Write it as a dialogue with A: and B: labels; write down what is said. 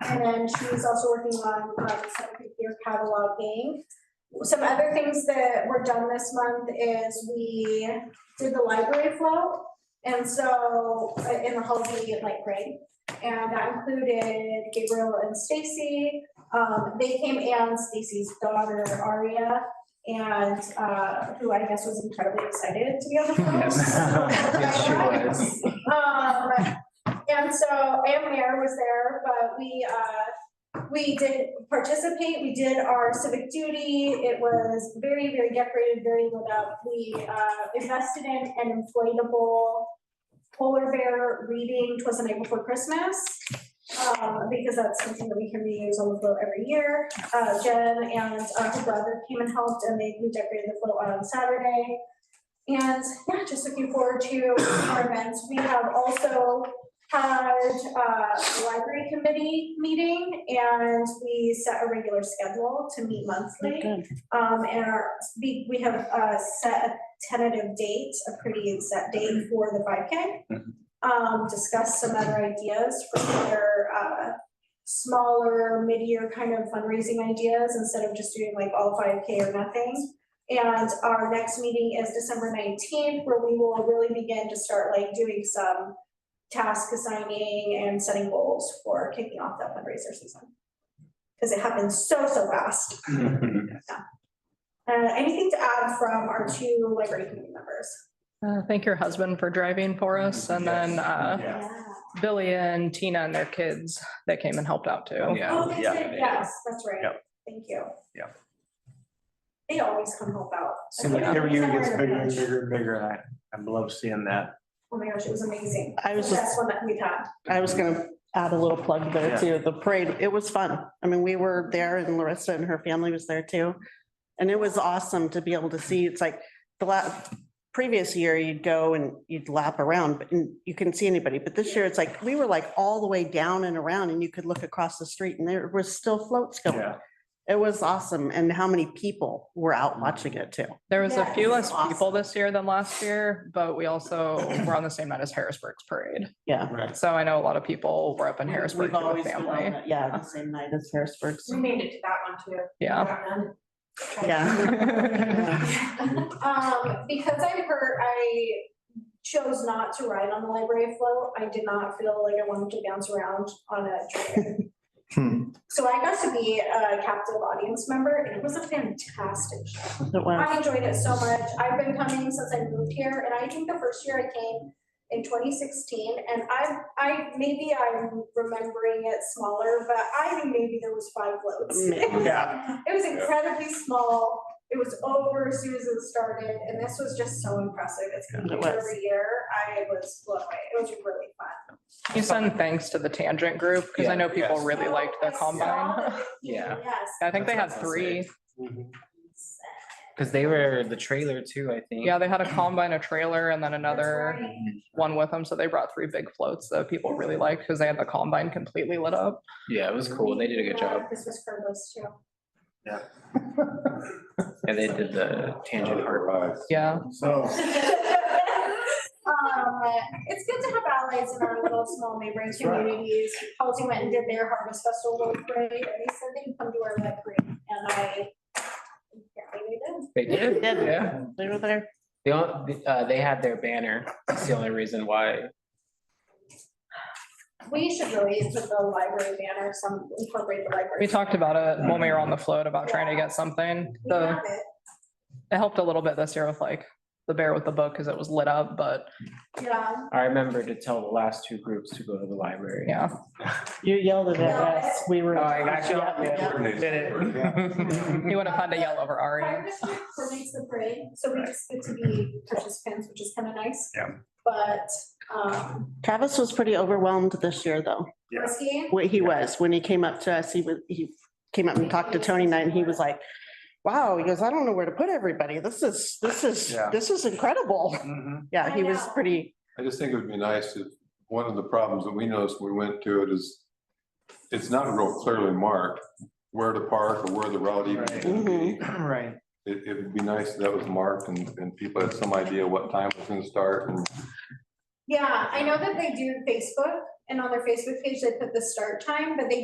A: And then she's also working on um, some figure cataloging. Some other things that were done this month is we did the library float. And so uh, in the Holiday Light Parade, and that included Gabriel and Stacy. Um, they came and Stacy's daughter Aria, and uh, who I guess was incredibly excited to be on the float.
B: Yes, she was.
A: Um, and so, and Mayor was there, but we, uh, we did participate, we did our civic duty. It was very, very decorated, very lit up. We, uh, invested in an inflatable polar bear reading Twas the Night Before Christmas. Um, because that's something that we can reuse on the float every year. Uh, Jen and uh, her brother came and helped and they redecorated the float on Saturday. And yeah, just looking forward to our events. We have also had uh, a library committee meeting and we set a regular schedule to meet monthly. Um, and our, we, we have uh, set a tentative date, a pretty set date for the five K.
B: Mhm.
A: Um, discuss some other ideas for other uh, smaller, mid-year kind of fundraising ideas instead of just doing like all five K or nothing. And our next meeting is December nineteenth, where we will really begin to start like doing some task assigning and setting goals for kicking off that fundraiser season. Because it happens so, so fast. Uh, anything to add from our two library committee members?
C: Uh, Thank your husband for driving for us and then uh,
B: Mm-hmm. Yeah.
C: Billy and Tina and their kids that came and helped out too.
A: Oh, that's
B: yeah.
A: right, yes, that's right.
B: Yep.
A: Thank you.
B: Yep.
A: They always come help out.
B: Seems like every year it gets bigger and bigger and bigger. and I, I love seeing that.
A: Oh my gosh, it was amazing.
D: I was
A: That's
D: just,
A: one that we had.
D: I was gonna add a little plug there too. The parade, it was fun. I mean, we were there and Larissa and her family was there too. And it was awesome to be able to see. It's like the last, previous year you'd go and you'd lap around but and you couldn't see anybody. But this year it's like, we were like all the way down and around and you could look across the street and there was still floats going.
B: Yeah.
D: It was awesome. And how many people were out watching it too?
C: There was a few
A: Yes.
C: less people this year than last year, but we also were on the same night as Harrisburg's parade.
D: Yeah.
B: Right.
C: So I know a lot of people were up in
D: We've
C: Harrisburg with
D: always been on
C: family.
D: that- Yeah, the same night as Harrisburg.
E: We made it to that one too.
C: Yeah.
D: Yeah.
A: Um, because I'm hurt, I chose not to ride on the library float. I did not feel like I wanted to bounce around on a train.
B: Hmm.
A: So I got to be a captive audience member and it was a fantastic show.
D: It was.
A: I enjoyed it so much. I've been coming since I moved here, and I think the first year I came in twenty sixteen, and I, I, maybe I'm remembering it smaller, but I think maybe there was five floats.
D: Maybe.
B: Yeah.
A: It was incredibly small. It was over as soon as it started, and this was just so impressive. It's been
D: It
A: huge
D: was.
A: every year. I was blown away. It was really fun.
C: You send thanks to the tangent group because I
B: Yeah,
C: know people
B: yes.
C: really liked their
A: I saw
C: combine.
A: that.
F: Yeah.
A: Yes.
C: I think they had
F: That's what I was gonna say.
C: three.
B: Mm-hmm.
F: Cause they were the trailer too, I think.
C: Yeah, they had a combine, a trailer and then
A: That's
C: another
A: right.
C: one with them. So they brought three big floats that people really liked because they had the combine completely lit up.
F: Yeah, it was cool. They did a good
A: Yeah,
F: job.
A: Christmas Cardinals too.
F: And they did the tangent art.
C: Yeah.
B: So.
A: Um, it's good to have allies in our little small neighboring communities. Halsey went and did their harvest festival little parade, and they said they'd come to our red parade, and I. apparently they
F: They did,
D: They did.
F: yeah.
D: They were there.
F: They, all- uh, they had their banner. That's the only reason why.
A: did. We should really put the library banner, some incorporate the library.
C: We talked about it when we were on the float about trying to get something.
A: We
C: The,
A: have it.
C: it helped a little bit this year with like the bear with the book because it was lit up, but
A: Yeah,
F: I remember to tell the last two groups to go to the library.
C: yeah.
D: You yelled it at
A: Yeah.
D: us. We were.
F: Oh, I got you.
D: Yeah, yeah.
F: Did it.
C: He went and had to yell over
A: fire
C: Ari.
A: district coordinates the parade, so we just get to be participants, which is kind of nice.
B: Yeah.
A: But, um,
D: Travis was pretty overwhelmed this year, though.
B: Yeah.
A: risky,
D: What he
B: Yeah.
D: was, when he came up to us, he was, he came up and talked to Tony and I, and he was like, wow, he goes, I don't know where to put everybody. This is, this is,
B: Yeah.
D: this is incredible.
B: Mhm.
D: Yeah, he was
A: I know.
D: pretty,
G: I just think it would be nice if, one of the problems that we noticed when we went to it is it's not real clearly marked where to park or where the route even is. It,
B: Mm-hmm.
F: Right.
G: it would be nice if that was marked and, and people had some idea what time it was gonna start and
A: Yeah, I know that they do Facebook and on their Facebook page, they put the start time, but they